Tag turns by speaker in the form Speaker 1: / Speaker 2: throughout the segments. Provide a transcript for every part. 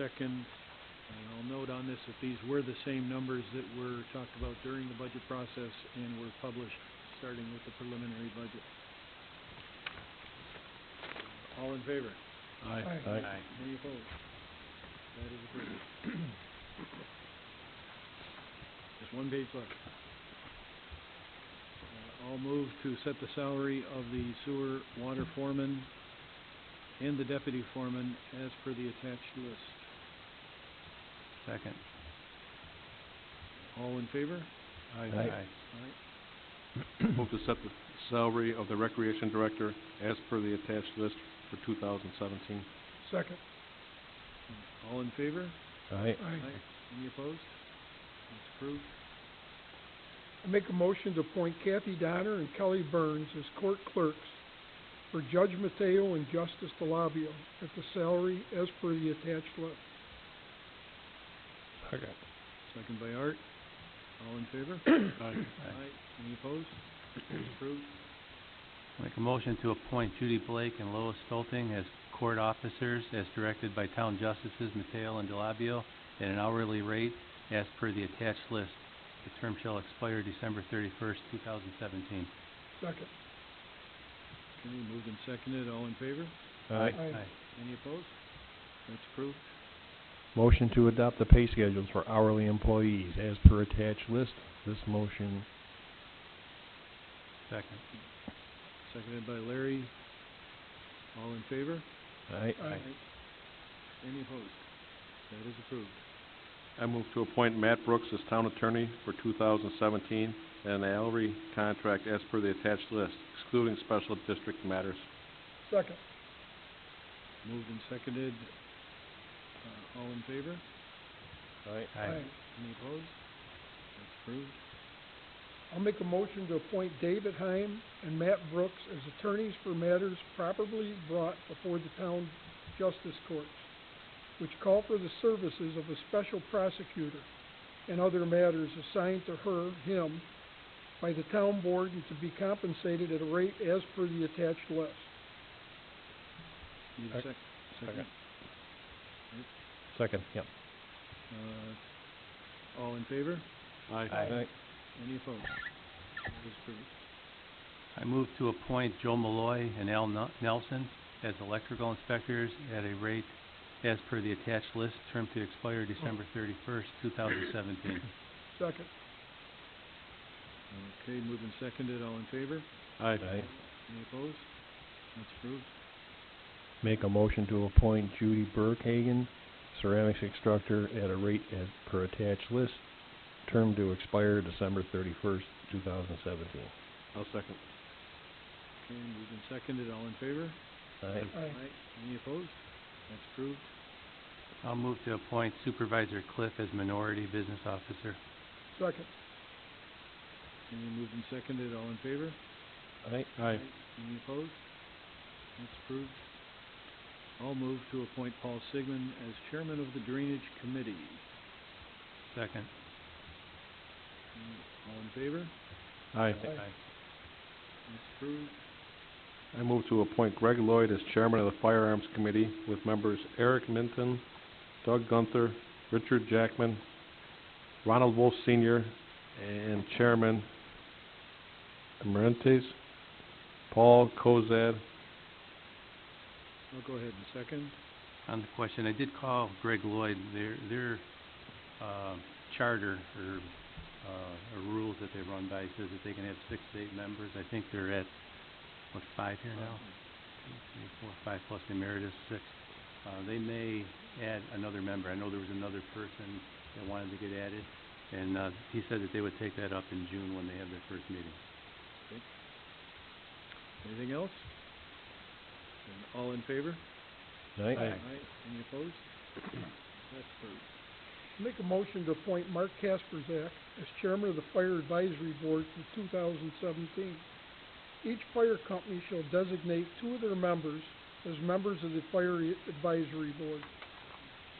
Speaker 1: second. And I'll note on this that these were the same numbers that were talked about during the budget process and were published, starting with the preliminary budget. All in favor?
Speaker 2: Aye.
Speaker 3: Aye.
Speaker 1: Any opposed? That is approved. Just one page left. Uh, I'll move to set the salary of the sewer water foreman and the deputy foreman as per the attached list.
Speaker 2: Second.
Speaker 1: All in favor?
Speaker 3: Aye.
Speaker 1: Aye.
Speaker 4: Move to set the salary of the recreation director as per the attached list for two thousand seventeen.
Speaker 3: Second.
Speaker 1: All in favor?
Speaker 2: Aye.
Speaker 3: Aye.
Speaker 1: Any opposed? That's approved.
Speaker 3: I make a motion to appoint Kathy Donner and Kelly Burns as court clerks for Judge Mateo and Justice DeLabio at the salary as per the attached list.
Speaker 2: Second.
Speaker 1: Second by Art. All in favor?
Speaker 4: Aye.
Speaker 1: Aye. Any opposed? That's approved.
Speaker 2: Make a motion to appoint Judy Blake and Lois Stolting as court officers as directed by Town Justices Mateo and Delabio at an hourly rate as per the attached list. The term shall expire December thirty-first, two thousand seventeen.
Speaker 3: Second.
Speaker 1: Okay, moved and seconded. All in favor?
Speaker 3: Aye.
Speaker 1: Any opposed? That's approved.
Speaker 5: Motion to adopt the pay schedules for hourly employees as per attached list. This motion,
Speaker 2: Second.
Speaker 1: Seconded by Larry. All in favor?
Speaker 5: aye.
Speaker 3: Aye.
Speaker 1: Any opposed? That is approved.
Speaker 4: I move to appoint Matt Brooks as town attorney for two thousand seventeen and an hourly contract as per the attached list, excluding special district matters.
Speaker 3: Second.
Speaker 1: Moved and seconded. Uh, all in favor?
Speaker 5: Aye.
Speaker 2: Aye.
Speaker 1: Any opposed? That's approved.
Speaker 3: I'll make a motion to appoint David Heim and Matt Brooks as attorneys for matters properly brought before the town justice courts, which call for the services of a special prosecutor and other matters assigned to her, him, by the town board and to be compensated at a rate as per the attached list.
Speaker 1: Need a sec- second?
Speaker 5: Second. Second, yep.
Speaker 1: Uh, all in favor?
Speaker 4: Aye.
Speaker 1: Any opposed? That is approved.
Speaker 2: I move to appoint Joe Malloy and Al Nel- Nelson as electrical inspectors at a rate as per the attached list, term to expire December thirty-first, two thousand seventeen.
Speaker 3: Second.
Speaker 1: Okay, moved and seconded. All in favor?
Speaker 4: Aye.
Speaker 5: Aye.
Speaker 1: Any opposed? That's approved.
Speaker 5: Make a motion to appoint Judy Burkhagen, ceramics instructor, at a rate as per attached list. Term to expire December thirty-first, two thousand seventeen.
Speaker 4: I'll second.
Speaker 1: Okay, moved and seconded. All in favor?
Speaker 5: Aye.
Speaker 3: Aye.
Speaker 1: Any opposed? That's approved.
Speaker 2: I'll move to appoint Supervisor Cliff as Minority Business Officer.
Speaker 3: Second.
Speaker 1: Any moved and seconded, all in favor?
Speaker 5: Aye.
Speaker 4: Aye.
Speaker 1: Any opposed? That's approved. I'll move to appoint Paul Sigmund as chairman of the Drainage Committee.
Speaker 2: Second.
Speaker 1: All in favor?
Speaker 4: Aye.
Speaker 1: That's approved.
Speaker 4: I move to appoint Greg Lloyd as chairman of the Firearms Committee with members Eric Minton, Doug Gunther, Richard Jackman, Ronald Wolf Senior, and Chairman Emeritus Paul Cozad.
Speaker 1: I'll go ahead and second.
Speaker 2: On the question, I did call Greg Lloyd, their, their, uh, charter or, uh, or rules that they run by says that they can have six to eight members. I think they're at, what, five here now? Two, three, four, five plus the emeritus, six. Uh, they may add another member. I know there was another person that wanted to get added. And, uh, he said that they would take that up in June when they have their first meeting.
Speaker 1: Anything else? And all in favor?
Speaker 5: Aye.
Speaker 1: Any opposed? That's approved.
Speaker 3: Make a motion to appoint Mark Kasperzak as chairman of the Fire Advisory Board for two thousand seventeen. Each fire company shall designate two of their members as members of the Fire Advisory Board.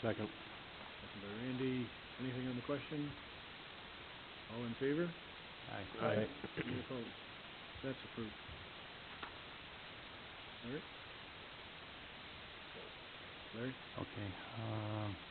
Speaker 4: Second.
Speaker 1: Second by Randy, anything on the question? All in favor?
Speaker 2: Aye.
Speaker 4: Aye.
Speaker 1: Any opposed? That's approved. All right. Larry?
Speaker 2: Okay, um,